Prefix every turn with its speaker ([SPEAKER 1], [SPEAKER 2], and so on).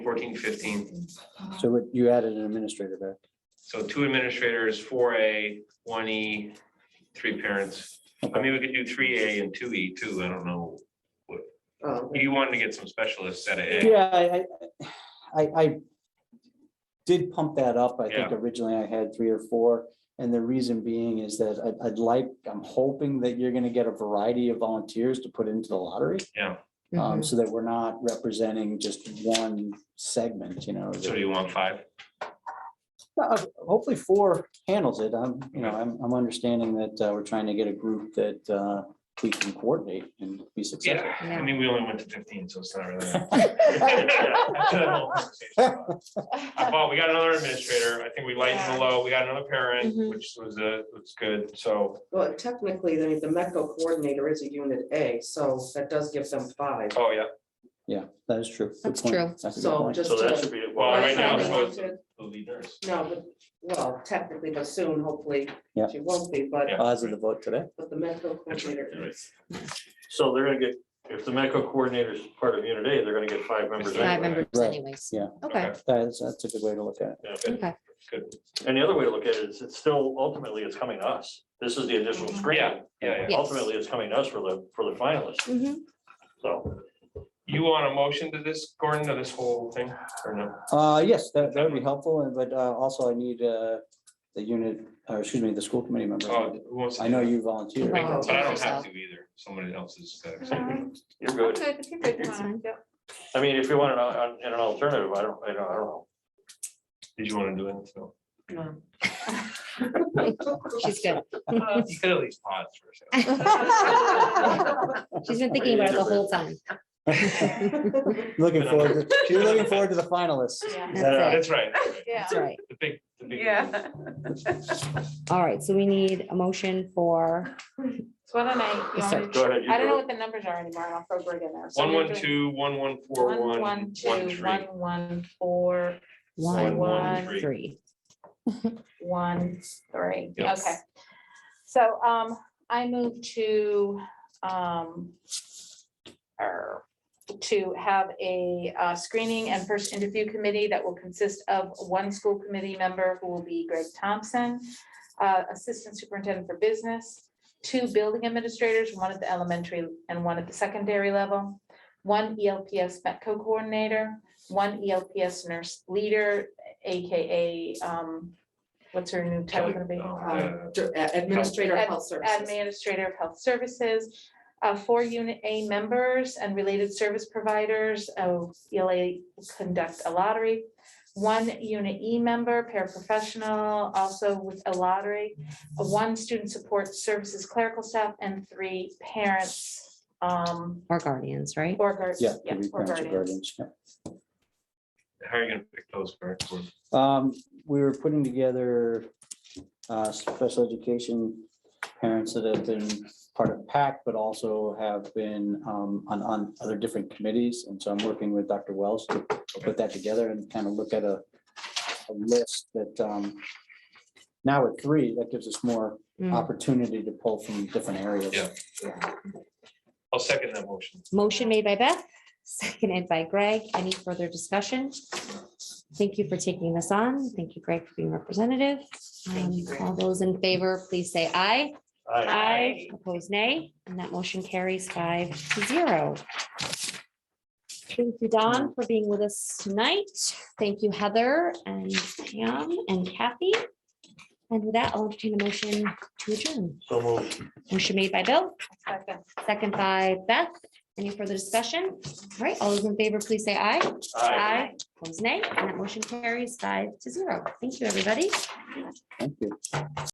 [SPEAKER 1] fourteen, fifteen.
[SPEAKER 2] Oh,
[SPEAKER 3] So what- you added an administrator back.
[SPEAKER 1] So two administrators, four A, one E, three parents. I mean, we could do three A and two E too. I don't know.
[SPEAKER 4] Oh,
[SPEAKER 1] You wanted to get some specialists at A.
[SPEAKER 3] Yeah, I, I, I- I did pump that up. I think
[SPEAKER 1] Yeah.
[SPEAKER 3] originally I had three or four. And the reason being is that I'd, I'd like, I'm hoping that you're gonna get a variety of volunteers to put into the lottery. Um,
[SPEAKER 4] mhm.
[SPEAKER 3] so that we're not representing just one segment, you know.
[SPEAKER 1] So
[SPEAKER 3] that-
[SPEAKER 1] do you want five?
[SPEAKER 3] Uh, Hopefully four handles it. I'm, you know, I'm, I'm understanding that uh, we're trying to get a group that uh, we can coordinate and be successful.
[SPEAKER 1] Yeah, I
[SPEAKER 4] Yeah.
[SPEAKER 1] mean, we only went to fifteen, so it's not really. Uh, Well, we got another administrator. I think we lightened the load. We got another parent,
[SPEAKER 2] Mhm.
[SPEAKER 1] which was a, was good, so.
[SPEAKER 4] Well, technically, the, the MECO coordinator is a unit A, so that does give them five.
[SPEAKER 1] Oh, yeah.
[SPEAKER 3] Yeah, that is true. Good
[SPEAKER 2] That's
[SPEAKER 3] point.
[SPEAKER 2] true.
[SPEAKER 3] That's a good
[SPEAKER 4] So
[SPEAKER 3] point.
[SPEAKER 4] just.
[SPEAKER 5] So that
[SPEAKER 4] to-
[SPEAKER 5] should be,
[SPEAKER 1] Well, right now,
[SPEAKER 4] That's
[SPEAKER 1] so it's
[SPEAKER 4] not
[SPEAKER 1] the lead nurse.
[SPEAKER 4] No, but, well, technically, but soon, hopefully,
[SPEAKER 3] Yeah.
[SPEAKER 4] she won't be, but,
[SPEAKER 1] Yeah.
[SPEAKER 3] Odds of the vote today.
[SPEAKER 4] but the MECO
[SPEAKER 5] That's right, you're
[SPEAKER 4] coordinator
[SPEAKER 5] right.
[SPEAKER 4] is.
[SPEAKER 5] so they're gonna get, if the medical coordinator is part of unit A, they're gonna get five members.
[SPEAKER 1] Five
[SPEAKER 2] Five
[SPEAKER 5] anyway.
[SPEAKER 2] members
[SPEAKER 3] Right,
[SPEAKER 2] anyways.
[SPEAKER 3] yeah.
[SPEAKER 2] Okay,
[SPEAKER 3] That is, that's a good way to look at it.
[SPEAKER 5] Yeah.
[SPEAKER 2] okay.
[SPEAKER 5] And the other way to look at it is it's still ultimately it's coming to us. This is the initial screening.
[SPEAKER 1] Yeah,
[SPEAKER 2] yeah.
[SPEAKER 5] Ultimately, it's coming to us for the, for the finalists.
[SPEAKER 2] Mhm.
[SPEAKER 5] So
[SPEAKER 1] You want a motion to this, Gordon, to this whole thing, or no?
[SPEAKER 3] Uh, yes, that, that would be helpful, and but uh, also I need uh, the unit, or excuse me, the school committee member.
[SPEAKER 1] Oh, who wants to
[SPEAKER 3] I
[SPEAKER 1] do
[SPEAKER 3] know
[SPEAKER 1] that?
[SPEAKER 3] you volunteered.
[SPEAKER 1] But I don't have
[SPEAKER 2] Yourself.
[SPEAKER 1] to either, somebody else is. uh,
[SPEAKER 5] you're good.
[SPEAKER 2] Good, if you're good, fine.
[SPEAKER 5] I mean, if you want an, al- an an alternative, I don't, I don't, I don't know.
[SPEAKER 1] Did you want to do it? No.
[SPEAKER 4] No.
[SPEAKER 2] She's good.
[SPEAKER 1] You could at least pause for a second.
[SPEAKER 2] She's been thinking about it the whole time.
[SPEAKER 3] Looking forward, to- you're looking forward to the finalists.
[SPEAKER 2] That's it.
[SPEAKER 1] That's right,
[SPEAKER 6] Yeah.
[SPEAKER 2] That's right.
[SPEAKER 1] the big, the big.
[SPEAKER 6] Yeah.
[SPEAKER 2] All right, so we need a motion for,
[SPEAKER 6] So why don't I, you
[SPEAKER 2] Yes,
[SPEAKER 6] want
[SPEAKER 2] sir.
[SPEAKER 6] me to-
[SPEAKER 5] Go ahead. you
[SPEAKER 6] I don't
[SPEAKER 5] do
[SPEAKER 6] know
[SPEAKER 5] it.
[SPEAKER 6] what the numbers are anymore, and I'll throw Greg in there. So
[SPEAKER 1] One,
[SPEAKER 6] we're
[SPEAKER 1] one,
[SPEAKER 6] doing
[SPEAKER 1] two, one, one, four,
[SPEAKER 6] One,
[SPEAKER 1] one,
[SPEAKER 6] one,
[SPEAKER 1] one,
[SPEAKER 6] two,
[SPEAKER 1] three.
[SPEAKER 6] one, one, four,
[SPEAKER 2] one,
[SPEAKER 6] one,
[SPEAKER 1] three.
[SPEAKER 2] three.
[SPEAKER 6] one, three.
[SPEAKER 1] Yeah.
[SPEAKER 6] Okay. So um, I move to um, er, to have a uh, screening and first interview committee that will consist of one school committee member who will be Greg Thompson, uh, Assistant Superintendent for Business, two building administrators, one at the elementary and one at the secondary level, one E ELPS METCO coordinator, one E ELPS nurse leader, AKA um, what's her new title gonna be?
[SPEAKER 1] Oh,
[SPEAKER 6] Um,
[SPEAKER 1] yeah.
[SPEAKER 4] Dir- a- Administrator of Health Services.
[SPEAKER 6] Administrator of Health Services, uh, four Unit A members and related service providers, uh, ELA conduct a lottery. One Unit E member, paraprofessional, also with a lottery, uh, one student support services clerical staff, and three parents. um,
[SPEAKER 2] Or guardians, right?
[SPEAKER 6] Or guards.
[SPEAKER 3] Yeah. could be parents
[SPEAKER 6] Or
[SPEAKER 3] or
[SPEAKER 6] guardians.
[SPEAKER 3] guardians, yeah.
[SPEAKER 1] How are you gonna pick those? for- for-
[SPEAKER 3] Um, we were putting together uh, special education parents that have been part of PAC, but also have been um, on, on other different committees. And so I'm working with Dr. Wells to put that together and kind of look at a, a list that um, now with three, that gives us more
[SPEAKER 2] Mm.
[SPEAKER 3] opportunity to pull from different areas.
[SPEAKER 1] Yeah. I'll second that motion.
[SPEAKER 2] Motion made by Beth, seconded by Greg. Any further discussion? Thank you for taking this on. Thank you, Greg, for being representative.
[SPEAKER 4] Thank you,
[SPEAKER 2] Um,
[SPEAKER 4] Greg.
[SPEAKER 2] All those in favor, please say aye.
[SPEAKER 5] Aye.
[SPEAKER 2] Aye. Opposed, nay, and that motion carries five to zero. Thank you, Don, for being with us tonight. Thank you, Heather and Pam and Kathy. And with that, I'll entertain a motion to adjourn.
[SPEAKER 5] So moved.
[SPEAKER 2] Motion made by Bill,
[SPEAKER 6] Second.
[SPEAKER 2] second by Beth. Any further discussion? All right, all those in favor, please say aye. Opposed, nay, and that motion carries five to zero. Thank you, everybody.
[SPEAKER 3] Thank you.